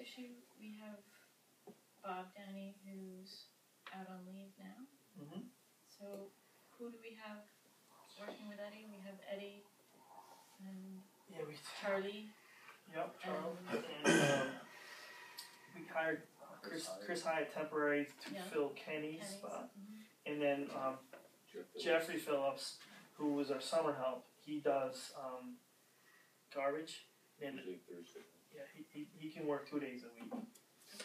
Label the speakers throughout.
Speaker 1: issue, we have Bob Downey who's out on leave now.
Speaker 2: Mhm.
Speaker 1: So who do we have working with Eddie? We have Eddie and
Speaker 2: Yeah, we,
Speaker 1: Charlie
Speaker 2: yep, Charles,
Speaker 1: and
Speaker 2: and, um, we hired Chris,
Speaker 3: Chris Hyde.
Speaker 2: Chris Hyde temporary to
Speaker 1: Yeah.
Speaker 2: fill Kenny's
Speaker 1: Kenny's.
Speaker 2: spot,
Speaker 1: Mhm.
Speaker 2: and then, um, Jeffrey Phillips, who was our summer help, he does, um, garbage, and,
Speaker 3: Usually Thursday.
Speaker 2: yeah, he, he, he can work two days a week.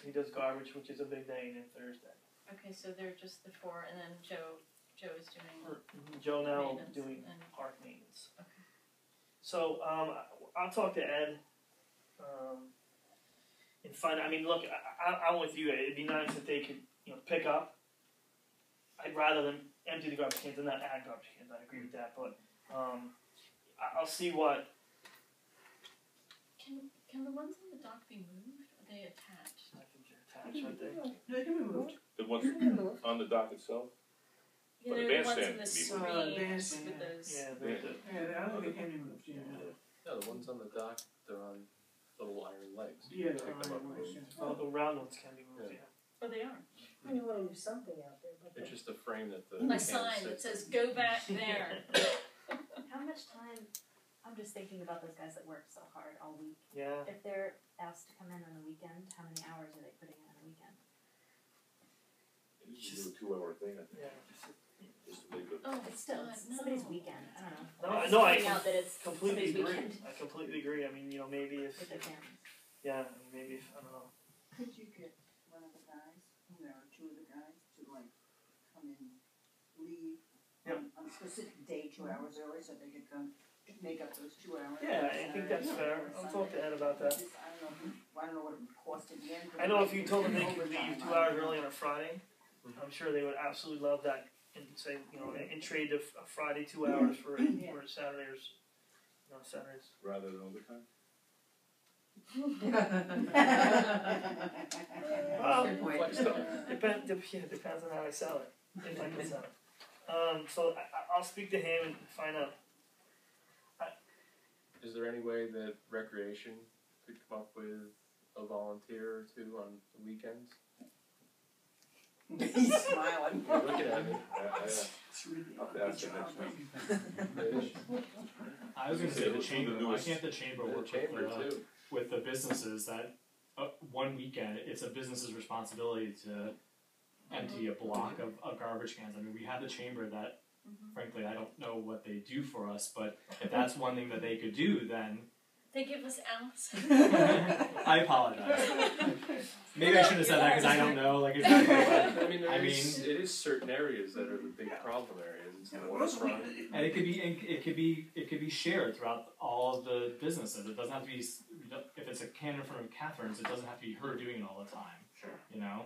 Speaker 2: He does garbage, which is a big day, and then Thursday.
Speaker 1: Okay, so they're just the four and then Joe, Joe is doing
Speaker 2: Joe now
Speaker 1: maintenance
Speaker 2: doing
Speaker 1: and
Speaker 2: park maintenance.
Speaker 1: Okay.
Speaker 2: So um, I- I'll talk to Ed um, and find. I mean, look, I, I, I'm with you. It'd be nice if they could, you know, pick up. I'd rather them empty the garbage cans and not add garbage cans. I agree with that, but um, I- I'll see what.
Speaker 1: Can can the ones on the dock be moved? Are they attached?
Speaker 2: I think they're attached, aren't they?
Speaker 4: They can be moved.
Speaker 5: The ones on the dock itself?
Speaker 1: Yeah,
Speaker 5: Or the
Speaker 1: they're the ones in the screens
Speaker 5: bandstand can be
Speaker 4: moved. Uh,
Speaker 6: Oh,
Speaker 2: bandstand,
Speaker 1: with those.
Speaker 2: Yeah, they're, they're,
Speaker 4: Yeah, I don't think they can be moved, yeah.
Speaker 3: No, the ones on the dock, they're on little iron legs.
Speaker 4: Yeah, they're
Speaker 3: Pick them up.
Speaker 4: on the legs, yeah.
Speaker 2: oh, the round ones can be moved. Yeah.
Speaker 1: Oh, they are.
Speaker 6: I mean, want to do something out there, but.
Speaker 3: It's just a frame that
Speaker 1: A
Speaker 3: the. hand
Speaker 1: sign that
Speaker 3: sits
Speaker 1: says "Go back there."
Speaker 7: How much time? I'm just thinking about those guys that work so hard all week.
Speaker 2: yeah.
Speaker 7: If they're asked to come in on the weekend, how many hours are they putting in on the weekend?
Speaker 3: in. It's just a two hour thing, I
Speaker 2: Yeah.
Speaker 3: think, just to leave it.
Speaker 1: Oh,
Speaker 7: It's still
Speaker 1: God,
Speaker 7: it's
Speaker 1: no.
Speaker 7: somebody's weekend. I don't know.
Speaker 2: No,
Speaker 7: I'm
Speaker 2: I-
Speaker 7: just
Speaker 2: Uh, no, I
Speaker 7: pointing out that it's
Speaker 2: completely
Speaker 7: somebody's
Speaker 2: agree.
Speaker 7: weekend
Speaker 2: I completely agree. I mean, you know, maybe if
Speaker 7: with their families.
Speaker 2: yeah, maybe if I don't know.
Speaker 8: Could you get one of the guys, you know, or two of the guys to like come in, leave on- on a specific day, two hours early, so they could come, make up those two hours?
Speaker 2: Yeah, I think that's fair. I'll talk to Ed about that.
Speaker 8: Just, I don't know, I don't know what it would cost in the end. but
Speaker 2: I know
Speaker 8: it
Speaker 2: if you
Speaker 8: would
Speaker 2: told them
Speaker 8: be
Speaker 2: they could
Speaker 8: overtime,
Speaker 2: leave two
Speaker 8: I
Speaker 2: hours
Speaker 8: don't know.
Speaker 2: early on a Friday, I'm sure they would absolutely love that and say you know and, and trade a, f- a Friday two hours for a,
Speaker 8: Yeah.
Speaker 2: for a Saturday or s- no Saturdays.
Speaker 3: Rather than overtime?
Speaker 2: Well,
Speaker 4: Wait.
Speaker 3: Flex though.
Speaker 2: depend, dep yeah, depends on how I sell it. If I can sell it. Um, so I, I- I'll speak to him and find out.
Speaker 3: Is there any way that recreation could come up with a volunteer or two on the weekends?
Speaker 8: He's smiling.
Speaker 3: You're looking at it. I-
Speaker 4: It's really-
Speaker 3: I- I'll ask you next time.
Speaker 9: I was going to say the
Speaker 5: Who's the
Speaker 9: chamber. Why
Speaker 5: newest-
Speaker 9: can't the chamber
Speaker 3: The
Speaker 9: work
Speaker 3: chamber
Speaker 9: with, the,
Speaker 3: too.
Speaker 9: with the businesses that uh, one weekend it's a business's responsibility to empty a block of, of garbage cans. I mean, we had the chamber that,
Speaker 1: Mhm.
Speaker 9: frankly, I don't know what they do for us, but if that's one thing that they could do, then
Speaker 1: They give us ounce.
Speaker 9: I apologize. Maybe I should have said that because I don't know like exactly. What,
Speaker 3: I mean, there
Speaker 9: I
Speaker 3: is- it is certain areas that are the big problem areas. It's
Speaker 2: Yeah,
Speaker 3: the
Speaker 2: but most
Speaker 3: waterfront.
Speaker 2: we-
Speaker 9: and it could be and it could be it could be shared throughout all of the businesses. It doesn't have to be s- if it's a can in front of Catherine's. It doesn't have to be her doing it all the time.
Speaker 2: Sure.
Speaker 9: You know.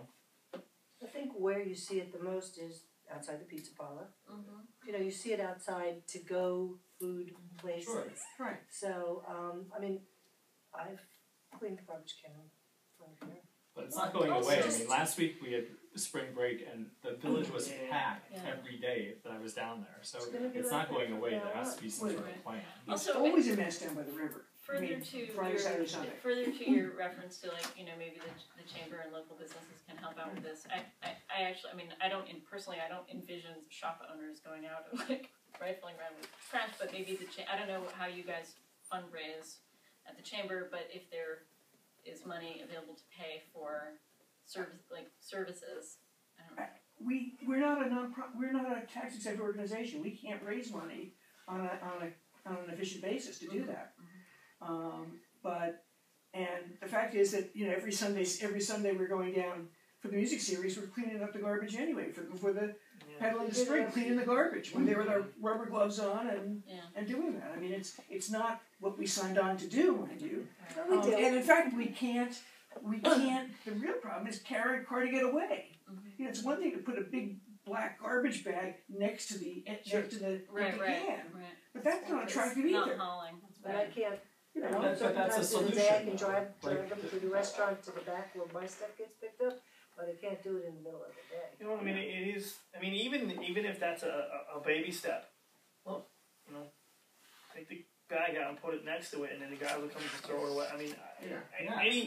Speaker 6: I think where you see it the most is outside the pizza parlor.
Speaker 1: Mhm.
Speaker 4: Mm-hmm.
Speaker 6: You know, you see it outside to go food places.
Speaker 9: Sure.
Speaker 4: Right.
Speaker 6: So, um, I mean, I've cleaned the garbage can from here.
Speaker 9: But it's not going
Speaker 1: Also-
Speaker 9: away. I mean, last week we had spring break and the village was
Speaker 2: Yeah.
Speaker 9: packed
Speaker 1: Yeah.
Speaker 9: every day that I was down there. So
Speaker 6: It's gonna be
Speaker 9: it's
Speaker 6: like
Speaker 9: not
Speaker 6: that
Speaker 9: going
Speaker 6: from
Speaker 9: away.
Speaker 6: now
Speaker 9: There has to be some
Speaker 4: on.
Speaker 9: sort of plan.
Speaker 4: It's
Speaker 1: Also,
Speaker 4: always a mess down by the river.
Speaker 1: Further
Speaker 4: Maybe
Speaker 1: to
Speaker 4: Friday,
Speaker 1: your
Speaker 4: Saturday, Sunday.
Speaker 1: further to your reference to like you know maybe the, the chamber and local businesses can help out with this. I, I, I actually I mean I don't in, personally I don't envision shop owners going out and like rifling around with trash, but maybe the cha- I don't know how you guys fundraise at the chamber, but if there is money available to pay for service like services, I don't know.
Speaker 4: We, we're not a non we're not a tax exempt organization, we can't raise money on a, on a, on an efficient basis to
Speaker 1: Mm-hmm.
Speaker 4: do that. Um, but, and the fact is that, you know, every Sunday, every Sunday we're going down for the music series, we're cleaning up the garbage anyway, for, for the
Speaker 2: Yeah.
Speaker 4: peddling the spring, cleaning the garbage, when they were with our rubber gloves on and,
Speaker 1: Mm-hmm. Yeah.
Speaker 4: and doing that, I mean, it's, it's not what we signed on to do, mind you.
Speaker 6: We
Speaker 4: Um,
Speaker 6: do.
Speaker 4: and in fact, we can't, we can't, the real problem is carry, car to get away.
Speaker 1: Mhm.
Speaker 4: You know, it's one thing to put a big black garbage bag next to the, next
Speaker 2: Sure.
Speaker 4: to the
Speaker 1: Right,
Speaker 4: empty
Speaker 1: right,
Speaker 4: can,
Speaker 1: right.
Speaker 4: but that's not attractive either.
Speaker 1: Not hauling.
Speaker 6: But I can't,
Speaker 4: You
Speaker 6: you
Speaker 4: know,
Speaker 6: know,
Speaker 9: But- but that's a
Speaker 6: sometimes in the day I
Speaker 9: solution,
Speaker 6: can drive,
Speaker 9: though.
Speaker 6: drive
Speaker 9: Like-
Speaker 6: them to the restaurant, to the back where my stuff gets picked up, but I can't do it in the middle of the day.
Speaker 2: You know what I mean? It is. I mean, even even if that's a, a, a baby step, look, you know, take the bag out and put it next to it, and then the guy will come and throw it away. I mean, I, I,
Speaker 4: Yeah.
Speaker 9: Yeah.
Speaker 2: any